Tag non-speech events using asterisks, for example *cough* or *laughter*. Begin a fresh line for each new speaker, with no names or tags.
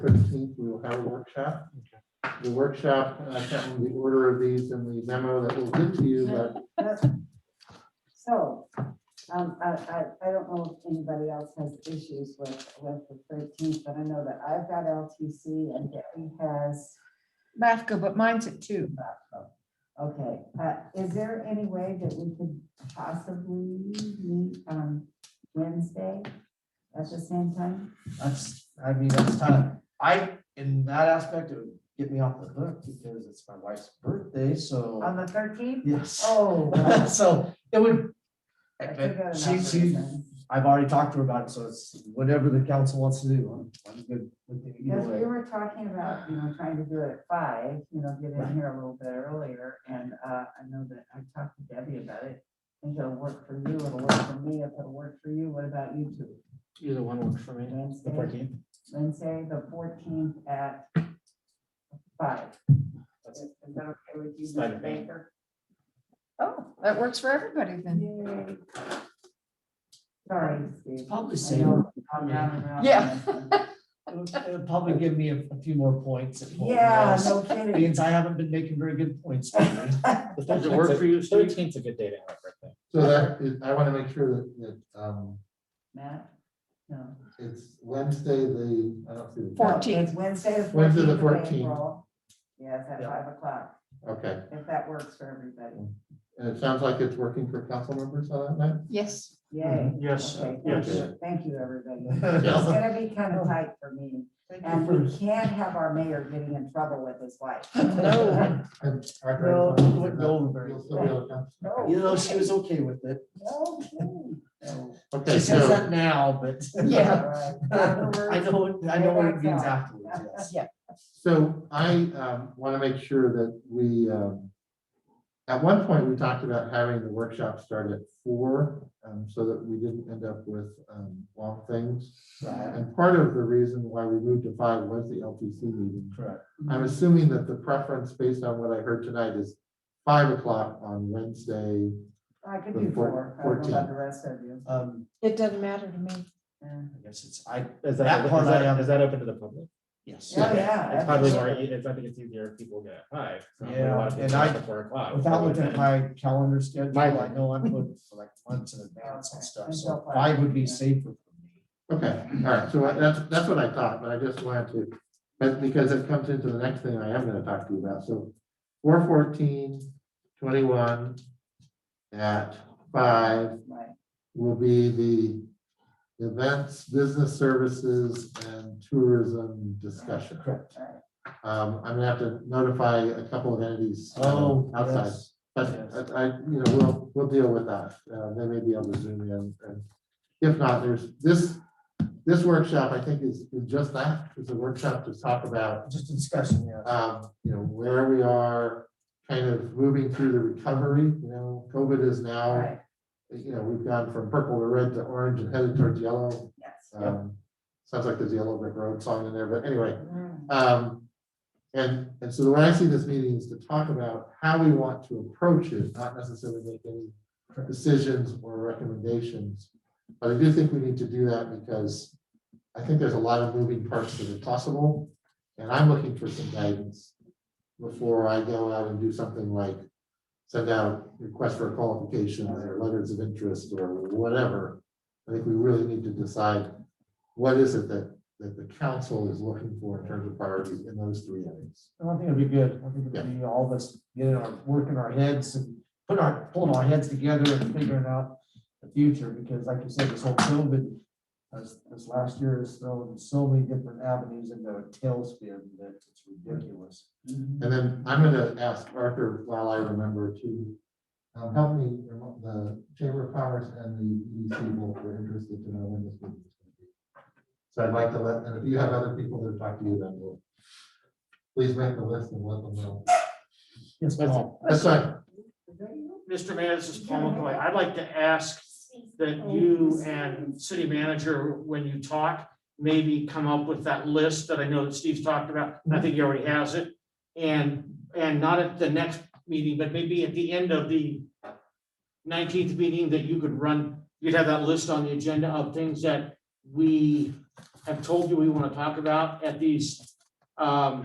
our workshop. The workshop, and I can't remember the order of these and the memo that we'll give to you, but
So, um, I, I, I don't know if anybody else has issues with, with the thirteenth, but I know that I've got LTC and Gary has.
LAFCO, but mine's at two.
Okay, uh, is there any way that we could possibly meet on Wednesday at the same time?
That's, I mean, that's time. I, in that aspect, it would get me off the hook because it's my wife's birthday,
On
so,
the thirteenth?
yes.
Oh. well,
*laughs* So it would.
I forgot
but She,
about
she,
that then.
I've already talked to her about it, so it's whatever the council wants to do. I'm, I'm good with it either
Because we
way.
were talking about, you know, trying to do it at five, you know, get in here a little bit earlier, and, uh, I know that I talked to Debbie about it. And it'll work for you, it'll work for me, if it'll work for you, what about you two?
Either one works for me.
Wednesday,
The 14th,
Wednesday, the fourteenth at five. Is
that's-
is that okay with you,
It's fine
Mr.
with me.
Baker?
Oh, that works for everybody then.
Yay. Sorry, Steve.
Probably
I
save,
know I've gone round and round on
Yeah.
this one.
it'll probably give me a, a few more points. at
*laughs*
home,
Yeah,
yes.
no kidding.
Means I haven't been making very good points. lately.
*laughs*
Does it work for you, Steve?
Thirteenth's a good day to have a birthday.
so that is, I want to make sure that, that, um,
Matt? No.
it's Wednesday, the, I don't see the.
Four.
calendar.
No, It's Wednesday, the
Wednesday,
fourteenth
the
of
14th.
April. Yeah, it's at
Yeah.
five o'clock,
Okay,
if that works for everybody.
and it sounds like it's working for council members on that night?
Yes.
Mm-hmm.
Yay.
*laughs*
Yes,
Okay, thank
yes.
you, thank you, everybody. It's
Yeah.
gonna be kind of tight for me,
Thank you
and
for-
we can't have our mayor getting in trouble with his wife.
*laughs* No.
And our
No,
grandson-
it wouldn't go over very
You'll still be able to come.
No.
You know, she was okay with it.
Okay.
So-
Okay,
She says
so,
that now, but. *laughs*
Yeah.
All right.
I
Afterwards,
know, what- I know what it means
Afterwards.
afterwards, yes.
so I, um, want to make sure that we, um, at one point, we talked about having the workshop start at four, um, so that we didn't end up with, um, long things.
Right,
And part of the reason why we moved to five was the LTC meeting.
correct.
I'm assuming that the preference, based on what I heard tonight, is five o'clock on Wednesday.
I could do
The
four,
four-
I don't know about
14th.
the rest of you.
Um,
It doesn't matter to me.
Yeah.
I guess it's, I,
Is
That
that, is
part I
that,
am-
is that open to the public?
yes.
Oh, yeah.
It's probably more,
absolutely.
e- it's, I think it's easier if people get at five. so we
Yeah,
want to
and
do
I-
it Before o'clock.
Without looking at my calendar schedule,
My-
I know I'm booked for like months in advance and
Okay,
stuff,
that's
so
okay.
five would be safer for me.
Okay, all right, so I- that's, that's what I thought, but I just wanted to, but because it comes into the next thing I am gonna talk to you about, so. Four fourteen, twenty-one at five
Right.
will be the events, business services and tourism discussion.
Correct.
Um, I'm gonna have to notify a couple of entities. um,
Oh,
Outside,
yes.
but
yes.
I, I- you know, we'll, we'll deal with that. Uh, they may be able to zoom in and if not, there's this, this workshop, I think is, is just that. It's a workshop to talk about,
Just a discussion, yeah.
um, you know, where we are kind of moving through the recovery, you know, COVID is now,
Right,
you know, we've gone from purple to red to orange and headed towards yellow.
yes.
Um, sounds like there's a Yellow Brick Road song in there, but anyway.
Mm,
Um, and, and so the way I see this meeting is to talk about how we want to approach it, not necessarily make any
Correct.
decisions or recommendations. But I do think we need to do that because I think there's a lot of moving parts that are possible. And I'm looking for some guidance before I go out and do something like send out request for qualification or letters of interest or whatever. I think we really need to decide what is it that that the council is looking for in terms of priorities in those three areas.
I don't think it'd be good. I think it'd be all of us getting our, working our heads and putting our, pulling our heads together and figuring out the future, because like you said, this whole COVID, this, this last year has thrown so many different avenues into a tailspin that it's ridiculous.
mhm.
And then I'm gonna ask Arthur, while I remember, to um, help me, remo- the Chamber of Commerce and the EDC both were interested to know when this meeting is going to be. So I'd like to let, and if you have other people that talk to you, then we'll, please make the list and let them know.
Yes, Paul.
That's right.
Is that you?
Mr. Mayor, this is Paul McCoy. I'd like to ask that
Oh,
you and city manager, when you talk, maybe come up with that list that I know that Steve's talked about. and I think he already has it. And, and not at the next meeting, but maybe at the end of the nineteenth meeting that you could run, you'd have that list on the agenda of things that we have told you we want to talk about at these
Um,